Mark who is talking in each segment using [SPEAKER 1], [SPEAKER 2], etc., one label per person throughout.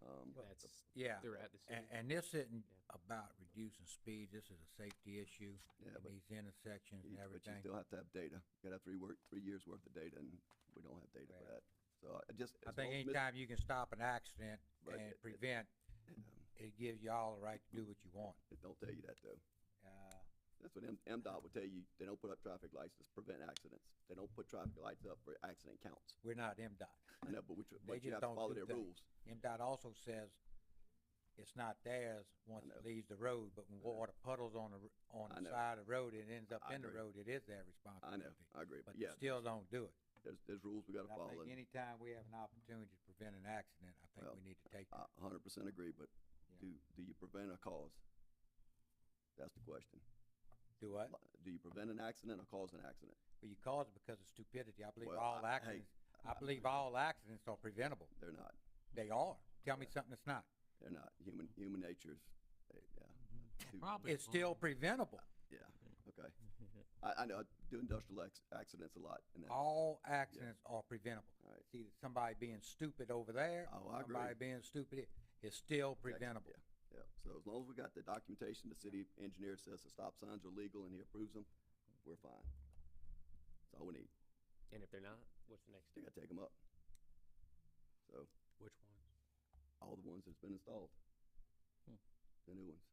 [SPEAKER 1] Um,
[SPEAKER 2] That's
[SPEAKER 3] Yeah,
[SPEAKER 2] throughout the city.
[SPEAKER 3] uh, and, and this isn't about reducing speed, this is a safety issue
[SPEAKER 1] Yeah,
[SPEAKER 3] in
[SPEAKER 1] but
[SPEAKER 3] these intersections
[SPEAKER 1] you-
[SPEAKER 3] and
[SPEAKER 1] But you
[SPEAKER 3] everything.
[SPEAKER 1] still have to have data. You gotta have three work, three years' worth of data, and we don't have data for
[SPEAKER 3] Right.
[SPEAKER 1] that. So I just.
[SPEAKER 3] I
[SPEAKER 1] as long
[SPEAKER 3] think
[SPEAKER 1] as Ms.
[SPEAKER 3] anytime you can stop an accident
[SPEAKER 1] Right,
[SPEAKER 3] and
[SPEAKER 1] it- it-
[SPEAKER 3] prevent,
[SPEAKER 1] um,
[SPEAKER 3] it gives y'all the right to do what you want.
[SPEAKER 1] It don't tell you that though.
[SPEAKER 3] Uh,
[SPEAKER 1] That's what M, MDOT will tell you. They don't put up traffic lights to prevent accidents. They don't put traffic lights up for accident counts.
[SPEAKER 3] we're not MDOT.
[SPEAKER 1] I know, but we, tr-
[SPEAKER 3] They
[SPEAKER 1] but you
[SPEAKER 3] just
[SPEAKER 1] have to
[SPEAKER 3] don't
[SPEAKER 1] follow
[SPEAKER 3] do
[SPEAKER 1] their
[SPEAKER 3] that.
[SPEAKER 1] rules.
[SPEAKER 3] MDOT also says it's not theirs once
[SPEAKER 1] know.
[SPEAKER 3] it leaves the road, but when
[SPEAKER 1] I know.
[SPEAKER 3] water puddles on the, r- on
[SPEAKER 1] I
[SPEAKER 3] the
[SPEAKER 1] know.
[SPEAKER 3] side of the road, it ends up
[SPEAKER 1] I
[SPEAKER 3] in the
[SPEAKER 1] agree.
[SPEAKER 3] road, it is their
[SPEAKER 1] I know,
[SPEAKER 3] responsibility.
[SPEAKER 1] I agree.
[SPEAKER 3] But
[SPEAKER 1] But
[SPEAKER 3] they
[SPEAKER 1] yeah,
[SPEAKER 3] still don't do it.
[SPEAKER 1] there's, there's rules we gotta
[SPEAKER 3] And I
[SPEAKER 1] follow.
[SPEAKER 3] think
[SPEAKER 1] and
[SPEAKER 3] anytime we have an opportunity to prevent an accident, I think
[SPEAKER 1] Well,
[SPEAKER 3] we need to take
[SPEAKER 1] I
[SPEAKER 3] that.
[SPEAKER 1] a hundred percent agree, but
[SPEAKER 3] Yeah.
[SPEAKER 1] do, do you prevent a cause? That's the question.
[SPEAKER 3] Do what?
[SPEAKER 1] Li- Do you prevent an accident or cause an accident?
[SPEAKER 3] Well, you cause it because of stupidity. I believe
[SPEAKER 1] Well,
[SPEAKER 3] all
[SPEAKER 1] I- hey,
[SPEAKER 3] accidents, I
[SPEAKER 1] I
[SPEAKER 3] believe all accidents are preventable.
[SPEAKER 1] They're not.
[SPEAKER 3] They are. Tell me something that's not.
[SPEAKER 1] They're not. Human, human nature's, eh, yeah. Too-
[SPEAKER 4] Probably.
[SPEAKER 3] It's still preventable.
[SPEAKER 1] Yeah, okay. I, I know, I do industrial acc- accidents a lot and that,
[SPEAKER 3] All accidents are preventable.
[SPEAKER 1] Right.
[SPEAKER 3] See, somebody being stupid over there,
[SPEAKER 1] Oh, I agree.
[SPEAKER 3] somebody being stupid, here, it's still
[SPEAKER 1] That's-
[SPEAKER 3] preventable.
[SPEAKER 1] yeah, yeah. So as long as we got the documentation, the city engineer says the stop signs are legal and he approves them, we're fine. That's all we need.
[SPEAKER 2] And if they're not, what's the next
[SPEAKER 1] They
[SPEAKER 2] step?
[SPEAKER 1] gotta take them up. So,
[SPEAKER 4] Which ones?
[SPEAKER 1] all the ones that's been installed.
[SPEAKER 3] Hmm.
[SPEAKER 1] The new ones.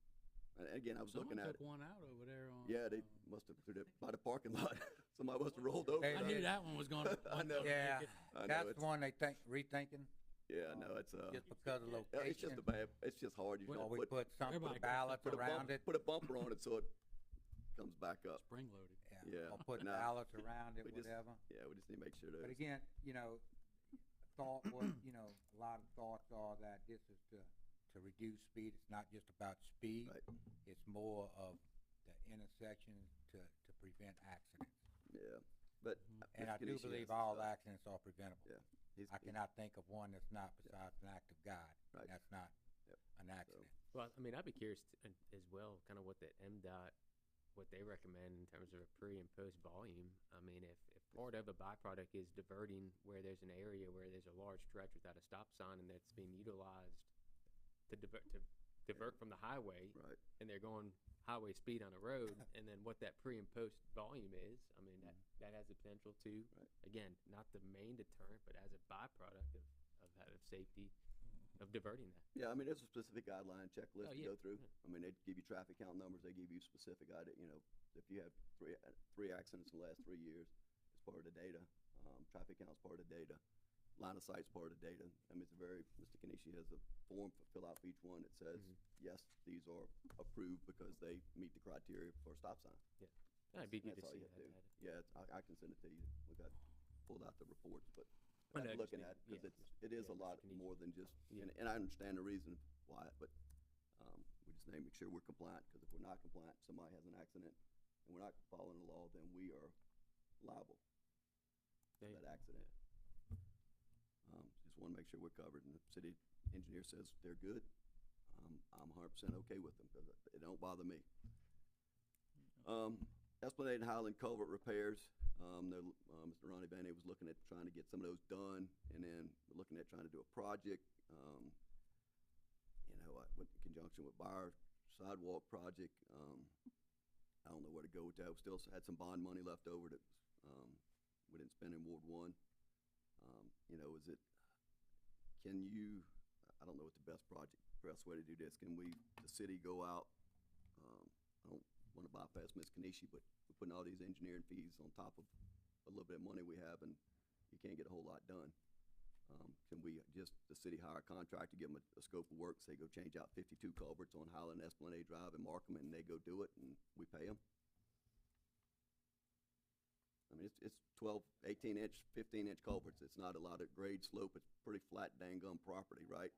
[SPEAKER 1] And again, I was
[SPEAKER 4] Someone
[SPEAKER 1] looking at
[SPEAKER 4] took
[SPEAKER 1] it.
[SPEAKER 4] one out over there on.
[SPEAKER 1] Yeah, they
[SPEAKER 4] um,
[SPEAKER 1] must have, through the, by the parking lot. Somebody must have rolled over.
[SPEAKER 3] Hey,
[SPEAKER 4] I
[SPEAKER 1] it.
[SPEAKER 4] knew that one was gonna.
[SPEAKER 1] I
[SPEAKER 4] one
[SPEAKER 1] know.
[SPEAKER 4] gonna
[SPEAKER 3] Yeah,
[SPEAKER 4] make it.
[SPEAKER 1] I know,
[SPEAKER 3] that's
[SPEAKER 1] it's-
[SPEAKER 3] the one they think, rethinking,
[SPEAKER 1] Yeah, no, it's, uh,
[SPEAKER 3] Um, just because of
[SPEAKER 1] yeah, it's just
[SPEAKER 3] location.
[SPEAKER 1] a bad, it's just hard. You
[SPEAKER 3] Or
[SPEAKER 1] don't
[SPEAKER 3] we
[SPEAKER 1] put,
[SPEAKER 3] put some, put a
[SPEAKER 4] Everybody goes-
[SPEAKER 3] ballot
[SPEAKER 1] put a
[SPEAKER 3] around
[SPEAKER 1] bumper,
[SPEAKER 3] it.
[SPEAKER 1] put a bumper on it so it comes back up.
[SPEAKER 4] Spring loaded.
[SPEAKER 1] Yeah,
[SPEAKER 3] Or put
[SPEAKER 1] nah,
[SPEAKER 3] ballots around it,
[SPEAKER 1] we just-
[SPEAKER 3] whatever.
[SPEAKER 1] Yeah, we just need to make sure
[SPEAKER 3] But
[SPEAKER 1] that,
[SPEAKER 3] again, you know, thought was, you know, a lot of thoughts are that this is to, to reduce speed, it's not just about speed.
[SPEAKER 1] Right.
[SPEAKER 3] It's more of the intersection to, to prevent accidents.
[SPEAKER 1] yeah, but.
[SPEAKER 3] And I
[SPEAKER 1] Mr. Ganesh, he
[SPEAKER 3] do
[SPEAKER 1] has
[SPEAKER 3] believe
[SPEAKER 1] some
[SPEAKER 3] all
[SPEAKER 1] stuff.
[SPEAKER 3] accidents are preventable.
[SPEAKER 1] Yeah. He's-
[SPEAKER 3] I
[SPEAKER 1] he-
[SPEAKER 3] cannot think of one that's not besides an act of God, and
[SPEAKER 1] Right.
[SPEAKER 3] that's not
[SPEAKER 1] Yep.
[SPEAKER 3] an accident.
[SPEAKER 2] Well, I mean, I'd be curious t- and- as well, kind of what that MDOT, what they recommend in terms of a pre and post volume. I mean, if, if part of a byproduct is diverting where there's an area where there's a large stretch without a stop sign and that's being utilized to divert, to divert from the highway
[SPEAKER 1] Right,
[SPEAKER 2] and they're going highway speed on a road and then what that pre and post volume is, I mean, that, that has the potential to,
[SPEAKER 1] Mm-hmm. Right.
[SPEAKER 2] again, not the main deterrent, but as a byproduct of, of, that- of safety,
[SPEAKER 1] Mm-hmm.
[SPEAKER 2] of diverting that.
[SPEAKER 1] yeah, I mean, there's a specific guideline checklist to
[SPEAKER 2] Oh, yeah,
[SPEAKER 1] go through.
[SPEAKER 2] yeah.
[SPEAKER 1] I mean, they give you traffic count numbers, they give you specific, ide- you know, if you have three, uh, three accidents in the last three years, it's part of the data. Um, traffic count's part of the data, line of sight's part of the data. I mean, it's a very, Mr. Kanishi has a form to fill out for each one that says,
[SPEAKER 2] Mhm.
[SPEAKER 1] yes, these are approved because they meet the criteria for a stop sign.
[SPEAKER 2] That'd be
[SPEAKER 1] And
[SPEAKER 2] good to
[SPEAKER 1] that's all
[SPEAKER 2] see
[SPEAKER 1] you
[SPEAKER 2] that
[SPEAKER 1] have to do.
[SPEAKER 2] data.
[SPEAKER 1] Yeah, it's- I, I can send it to you. We got, pulled out the reports, but
[SPEAKER 2] I know,
[SPEAKER 1] I'm
[SPEAKER 2] just
[SPEAKER 1] looking
[SPEAKER 2] need-
[SPEAKER 1] at, because
[SPEAKER 2] yeah,
[SPEAKER 1] it's, it is
[SPEAKER 2] yeah,
[SPEAKER 1] a
[SPEAKER 2] Mr.
[SPEAKER 1] lot
[SPEAKER 2] Kinesi.
[SPEAKER 1] more than just,
[SPEAKER 2] Yeah.
[SPEAKER 1] and, and I understand the reason why, but, um, we just need to make sure we're compliant, because if we're not compliant, somebody has an accident, and we're not following the law, then we are liable for
[SPEAKER 2] Yeah,
[SPEAKER 1] that accident. Um, just wanna make sure we're covered, and the city engineer says they're good. Um, I'm hundred percent okay with them, because it don't bother me. Um, Esplanade and Highland Culvert repairs, um, they're, uh, Mr. Ronnie Banney was looking at trying to get some of those done, and then looking at trying to do a project, um, you know, uh, with- in conjunction with Byer sidewalk project, um, I don't know where to go with that, we still had some bond money left over that, um, we didn't spend in Ward One. Um, you know, is it, can you, I don't know what the best project, best way to do this, can we, the city go out, um, I don't wanna bypass Ms. Kanishi, but we're putting all these engineering fees on top of a little bit of money we have and you can't get a whole lot done. Um, can we just, the city hire a contractor, give them a, a scope of work, say go change out fifty-two culverts on Highland Esplanade Drive and mark them and they go do it and we pay them? I mean, it's, it's twelve, eighteen inch, fifteen inch culverts, it's not a lot of grade slope, it's pretty flat dang gum property, right?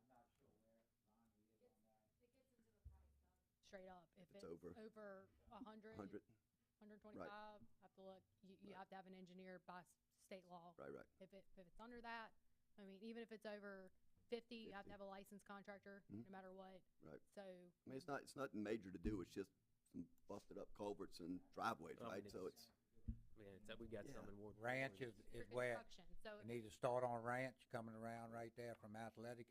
[SPEAKER 5] straight up. If
[SPEAKER 1] It's
[SPEAKER 5] it's
[SPEAKER 1] over.
[SPEAKER 5] over a hundred,
[SPEAKER 1] Hundred,
[SPEAKER 5] hundred twenty-five, have to look, you, you
[SPEAKER 1] Right.
[SPEAKER 5] have to have an engineer by s- state law.
[SPEAKER 1] right, right,
[SPEAKER 5] If it, if it's under that, I mean, even if it's over fifty, you
[SPEAKER 1] 50.
[SPEAKER 5] have to have a licensed contractor,
[SPEAKER 1] Mhm.
[SPEAKER 5] no matter what.
[SPEAKER 1] Right.
[SPEAKER 5] So,
[SPEAKER 1] I mean, it's not, it's nothing major to do, it's just some busted up culverts and driveways,
[SPEAKER 2] Oh,
[SPEAKER 1] right?
[SPEAKER 2] it
[SPEAKER 1] So
[SPEAKER 2] is.
[SPEAKER 1] it's,
[SPEAKER 2] Man, it's like we got
[SPEAKER 1] Yeah.
[SPEAKER 2] some in Ward.
[SPEAKER 3] Ranch
[SPEAKER 2] Orange.
[SPEAKER 3] is, is
[SPEAKER 5] for
[SPEAKER 3] where,
[SPEAKER 5] construction, so.
[SPEAKER 3] you need to start on Ranch coming around right there from Athletic